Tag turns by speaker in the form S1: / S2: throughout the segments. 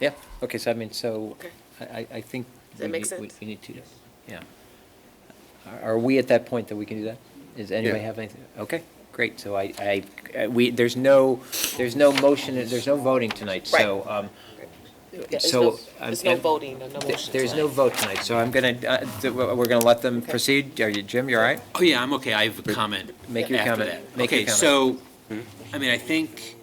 S1: Yeah, okay, so I mean, so
S2: Okay.
S1: I, I- I think.
S2: Does that
S1: we
S2: make
S1: need- we-
S2: sense?
S1: We need to, yeah. Are- Are we at that point that we can do that? Does anybody have anything? Okay, great, so I, I, uh, we, there's no, there's no motion, there's no voting tonight, so. um,
S2: There's
S1: So,
S2: no-
S1: um,
S2: There's no
S1: and-
S2: voting or no motion.
S1: There's no
S2: tonight.
S1: vote tonight, so I'm gonna, uh, th- we're we're gonna let them
S2: Okay.
S1: proceed. Are you, Jim, you all right?
S3: Oh, yeah, I'm okay. I have a comment.
S1: Make your
S3: after
S1: comment.
S3: that.
S1: Make your
S3: Okay,
S1: comment. Hmm?
S3: so, I mean, I think,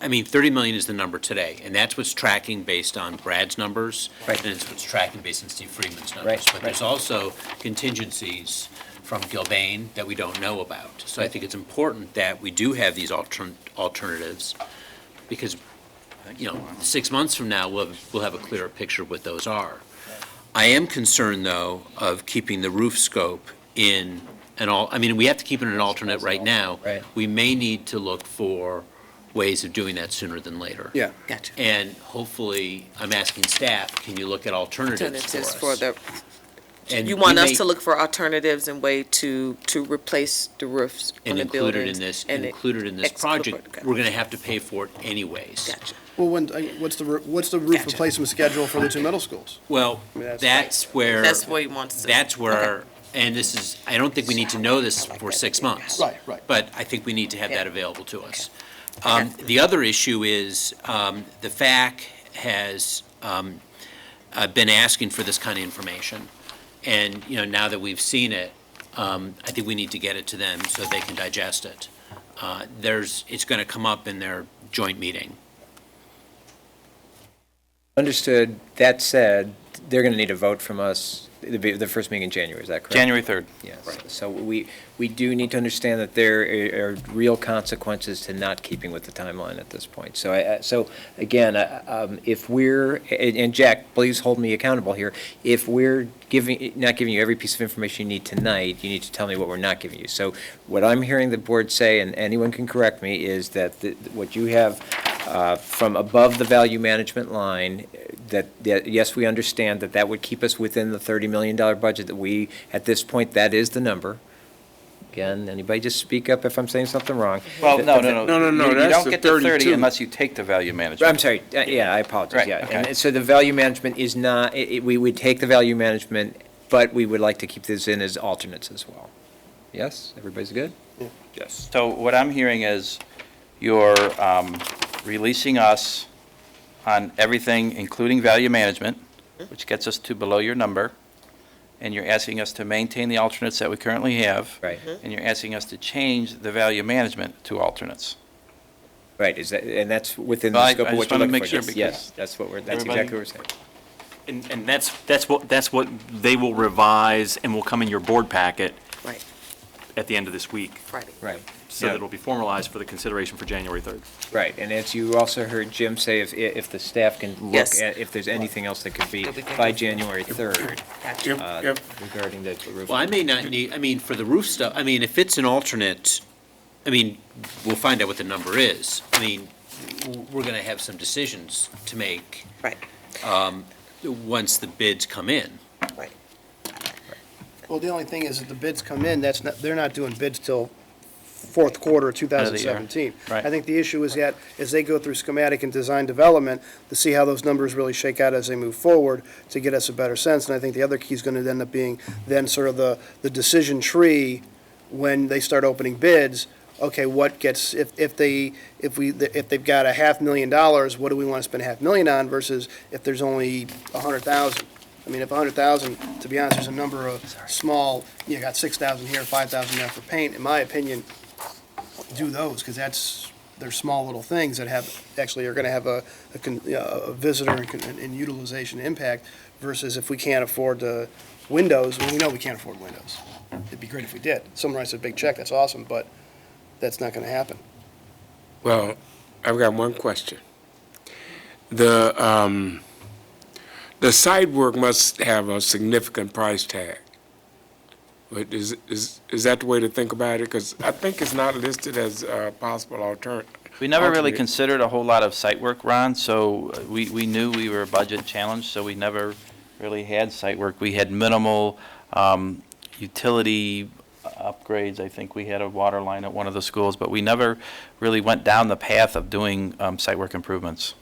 S3: I mean, 30 million is the number today, and that's what's tracking based on Brad's numbers.
S1: Right.
S3: And it's what's tracking based on Steve Friedman's numbers.
S1: Right,
S3: But there's
S1: right.
S3: also contingencies from Gilbane that we don't know about. So I think it's important that we do have these altern- alternatives, because, you know, six months from now, we'll, we'll have a clearer picture of what those are. I am concerned, though, of keeping the roof scope in an all, I mean, we have to keep it in an alternate right now.
S1: Right.
S3: We may need to look for ways of doing that sooner than later.
S4: Yeah.
S2: Gotcha.
S3: And hopefully, I'm asking staff, can you look at alternatives for
S2: Alternatives
S3: us?
S2: for the,
S3: And
S2: you
S3: we
S2: want us
S3: may-
S2: to look for alternatives and way to, to replace the roofs on
S3: And
S2: the
S3: included
S2: buildings.
S3: in this,
S2: and it-
S3: included in this
S2: exclude-
S3: project,
S2: okay.
S3: we're gonna have to pay for it anyways.
S2: Gotcha.
S4: Well, when, I- what's the, roo- what's the roof
S2: Gotcha.
S4: replacement schedule for the two middle schools?
S3: Well,
S4: I mean, that's-
S3: that's where.
S2: That's what he wants to.
S3: That's where, and this is, I don't think we need to know this for six months.
S4: Right, right.
S3: But I think we need to have that
S2: Yeah.
S3: available to us.
S2: Okay.
S3: Um, The other issue is, um, the FAC has um, uh, been asking for this kind of information. And, you know, now that we've seen it, um, I think we need to get it to them so they can digest it. Uh, There's, it's going to come up in their joint meeting.
S1: Understood. That said, they're gonna need a vote from us, it'll be the first meeting in January, is that correct?
S5: January 3rd.
S1: Yes, so we, we do need to understand that there are are real consequences to not keeping with the timeline at this point. So I, I- so again, I- um, if we're, and and Jack, please hold me accountable here. If we're giving, not giving you every piece of information you need tonight, you need to tell me what we're not giving you. So what I'm hearing the board say, and anyone can correct me, is that the- what you have uh, from above the value management line, that, that, yes, we understand that that would keep us within the $30 million budget that we, at this point, that is the number. Again, anybody just speak up if I'm saying something wrong.
S5: Well, no, no, no.
S4: No, no, no,
S5: You-
S4: that's
S5: You don't
S4: the
S5: get to
S4: 32.
S5: 30 unless you take the value management.
S1: I'm sorry, uh, yeah, I apologize,
S5: Right,
S1: yeah.
S5: okay.
S1: And so the value management is not, it, it- we would take the value management, but we would like to keep this in as alternates as well. Yes, everybody's good?
S4: Yes.
S5: So what I'm hearing is you're um, releasing us on everything, including value management,
S4: Mm-hmm.
S5: which gets us to below your number, and you're asking us to maintain the alternates that we currently have.
S1: Right.
S4: Mm-hmm.
S5: And you're asking us to change the value management to alternates.
S1: Right, is that, and that's within
S5: Well,
S1: the
S5: I-
S1: scope
S5: I
S1: of what
S5: just
S1: you're
S5: wanna
S1: looking for.
S5: make sure
S1: Yes, Yes,
S5: because
S1: that's what we're, that's
S5: everybody-
S1: exactly what we're saying.
S6: And, and that's, that's what, that's what they will revise and will come in your board packet
S2: Right,
S6: at the end of this week.
S2: Friday.
S1: Right.
S6: So that it'll be formalized for the consideration for January 3rd.
S1: Right, and as you also heard Jim say, if, if the staff can look
S2: Yes.
S1: at, if there's anything else that could be
S2: That we can
S1: by
S2: do.
S1: January 3rd
S2: Gotcha.
S1: uh, regarding the roof.
S3: Well, I may not need, I mean, for the roof stuff, I mean, if it's an alternate, I mean, we'll find out what the number is. I mean, w- we're gonna have some decisions to make
S2: Right,
S3: once the bids come in.
S2: right.
S4: Well, the only thing is that the bids come in, that's not, they're not doing bids till fourth quarter of
S5: of the year.
S4: 2017.
S5: Right.
S4: I think the issue is that, as they go through schematic and design development, to see how those numbers really shake out as they move forward, to get us a better sense. And I think the other key is going to end up being then sort of the, the decision tree when they start opening bids, okay, what gets, if, if they, if we, if they've got a half million dollars, what do we want to spend a half million on versus if there's only a hundred thousand? I mean, if a hundred thousand, to be honest, there's a number of small, you got six thousand here, five thousand there for paint, in my opinion, do those, because that's, they're small little things that have, actually are gonna have a, a con- you know, a visitor and con- and utilization impact versus if we can't afford the windows, well, we know we can't afford windows. It'd be great if we did. Someone writes a big check, that's awesome, but that's not gonna happen.
S7: Well, I've got one question. The, um, the site work must have a significant price tag. But is, is, is that the way to think about it? Because I think it's not listed as a possible alternative.
S5: We never really
S7: Alternate.
S5: considered a whole lot of site work, Ron, so uh, we, we knew we were a budget challenge, so we never really had site work. We had minimal um, utility upgrades. I think we had a water line at one of the schools, but we never really went down the path of doing um, site work improvements.